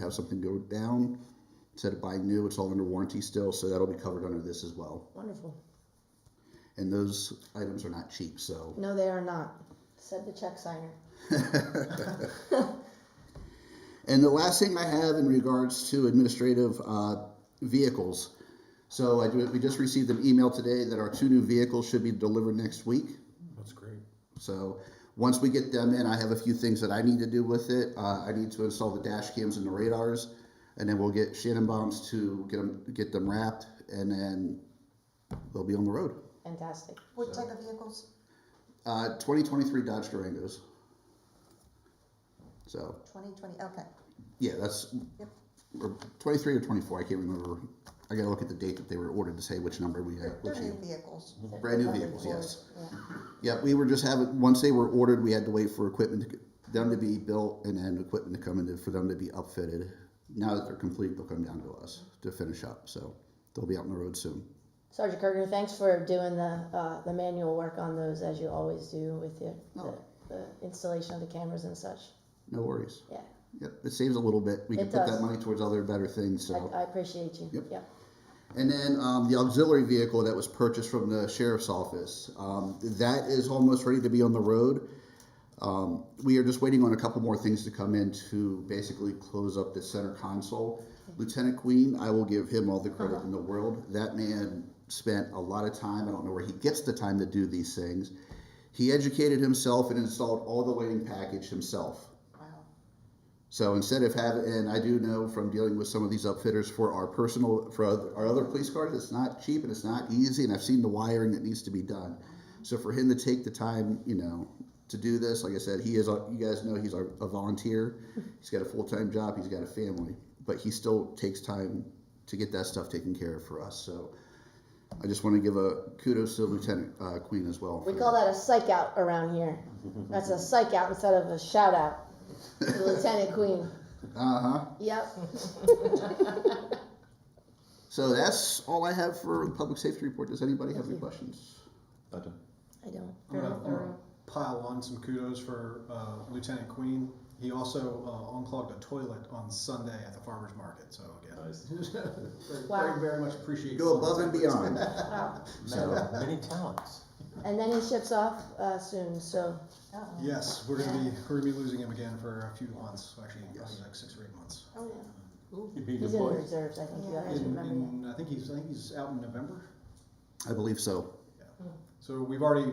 have something go down, instead of buying new, it's all under warranty still, so that'll be covered under this as well. Wonderful. And those items are not cheap, so. No, they are not, said the check signer. And the last thing I have in regards to administrative uh, vehicles. So I do, we just received an email today that our two new vehicles should be delivered next week. That's great. So once we get them in, I have a few things that I need to do with it. Uh, I need to install the dash cams and the radars, and then we'll get Shannon bombs to get them get them wrapped, and then they'll be on the road. Fantastic. What type of vehicles? Uh, 2023 Dodge Durangos. So Twenty twenty, okay. Yeah, that's Yep. or 23 or 24. I can't remember. I got to look at the date that they were ordered to say which number we had. Which They're new year. vehicles. Brand new vehicles, yes. Yeah. Yep, we were just having, once they were ordered, we had to wait for equipment, to them to be built and then equipment to come in for them to be upfitted. Now that they're complete, they'll come down to us to finish up. So they'll be out on the road soon. Sergeant Kirkner, thanks for doing the, uh, the manual work on those as you always do with the, the, Oh. the installation of the cameras and such. No worries. Yeah, Yep, it saves a little bit. We can It put does. that money towards other better things. So. I, I appreciate you. Uh-huh. Yep. Yep. And then um, the auxiliary vehicle that was purchased from the sheriff's office, um, that is almost ready to be on the road. Um, we are just waiting on a couple more things to come in to basically close up the center console. Lieutenant Queen, I will give him all the credit in the world. That man spent a lot of time. I don't know where he gets the time to do these things. He educated himself and installed all the lighting package himself. Wow. So instead of having, and I do know from dealing with some of these upfitters for our personal, for other- our other police cars, it's not cheap and it's not easy, and I've seen the wiring that needs to be done. So for him to take the time, you know, to do this, like I said, he is, a- you guys know, he's a a volunteer. He's got a full-time job, he's got a family, but he still takes time to get that stuff taken care of for us, so. I just want to give a kudos to Lieutenant uh, Queen as well. We for call that a psych out around here. That's a psych out instead of a shout out to Lieutenant Queen. Uh-huh. Yep. So that's all I have for the public safety report. Does anybody have any questions? I don't. I'm gonna, I'm gonna Uh-huh. pile on some kudos for uh, Lieutenant Queen. He also uh, unclogged a toilet on Sunday at the farmers market. So again, very, Wow. very, very much appreciate. Go above and beyond. Wow. So many talents. And then he ships off uh, soon, so Oh. Yes, we're gonna be we're gonna be losing him again for a few months. Actually, Yes. probably like six or eight months. You'd be he's in the reserves. I think you Yeah. guys In, remember Mm-hmm. that. in, I think he's I think he's out in November. I believe so. So we've already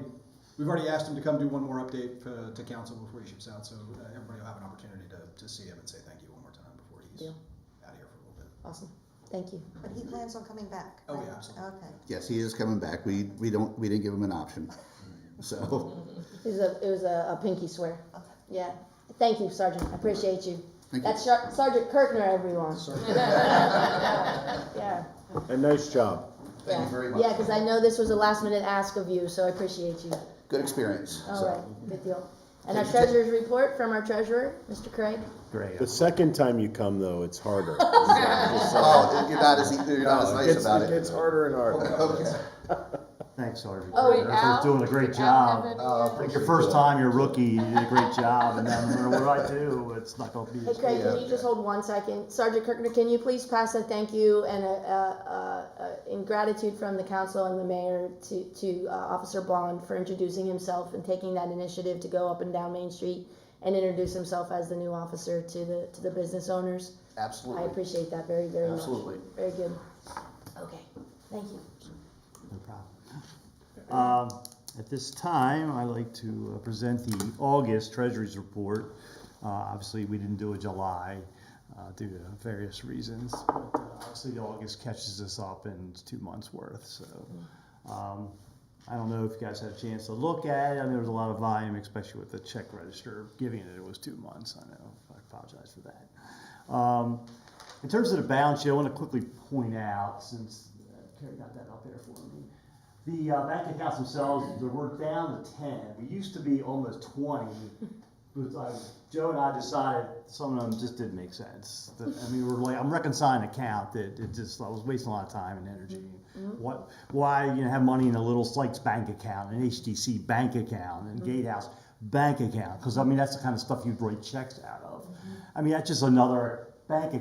we've already asked him to come do one more update uh, to council before he ships out. So uh, everybody will have an opportunity to, to see him and say thank you one more time before he's Deal. out of here for a little bit. Awesome. Thank you. But he plans on coming back? Oh, yeah, right? absolutely. Okay. Yes, he is coming back. We we don't we didn't give him an option. So It was a, it was a, a pinky swear. Okay. Yeah. Thank you, Sergeant. I appreciate you. thank you. That's Shar- Sergeant Kirkner, everyone. Yeah. And nice job. Thank yeah. you very Yeah, much. because I know this was a last minute ask of you, so I appreciate you. Good experience. All so. right, good deal. And our treasurer's report from our treasurer, Mr. Craig. The second time you come, though, it's harder. Oh, you're not as you're not as nice It's- about it. It's harder and harder. Okay. Thanks, Sergeant. Oh, You're Al? doing a great job. Uh, It's your first time, you're a rookie, you did a great job, and then no matter what do I do, it's not gonna be. Hey Craig, can you just hold one second? Sergeant Kirkner, can you please pass a thank you and a, a, a, a in gratitude from the council and the mayor to, to uh, Officer Bond for introducing himself and taking that initiative to go up and down Main Street and introduce himself as the new officer to the, to the business owners. I Absolutely. appreciate that very, very much. Absolutely. Very good. Okay, thank you. No problem. Um, At this time, I'd like to uh, present the August Treasury's Report. Uh, Obviously, we didn't do a July uh, due to various reasons, but uh, obviously August catches us up in two months' worth, so. um, I don't know if you guys had a chance to look at it, I mean, there was a lot of volume, especially with the check register, giving it, it was two months, I know, I apologize for that. Um, In terms of the balance sheet, I want to quickly point out, since uh, Terry got that up there for me, the uh, bank accounts themselves, they were down to ten. We used to be almost twenty. But like Joe and I decided some of them just didn't make sense. That, I mean, we're like, I'm reconciling an account that it just I was wasting a lot of time and energy. What? Why you know have money in a little Sykes bank account, an HTC bank account, and Gatehouse bank account? Because I mean that's the kind of stuff you'd write checks out of. I mean that's just another bank account.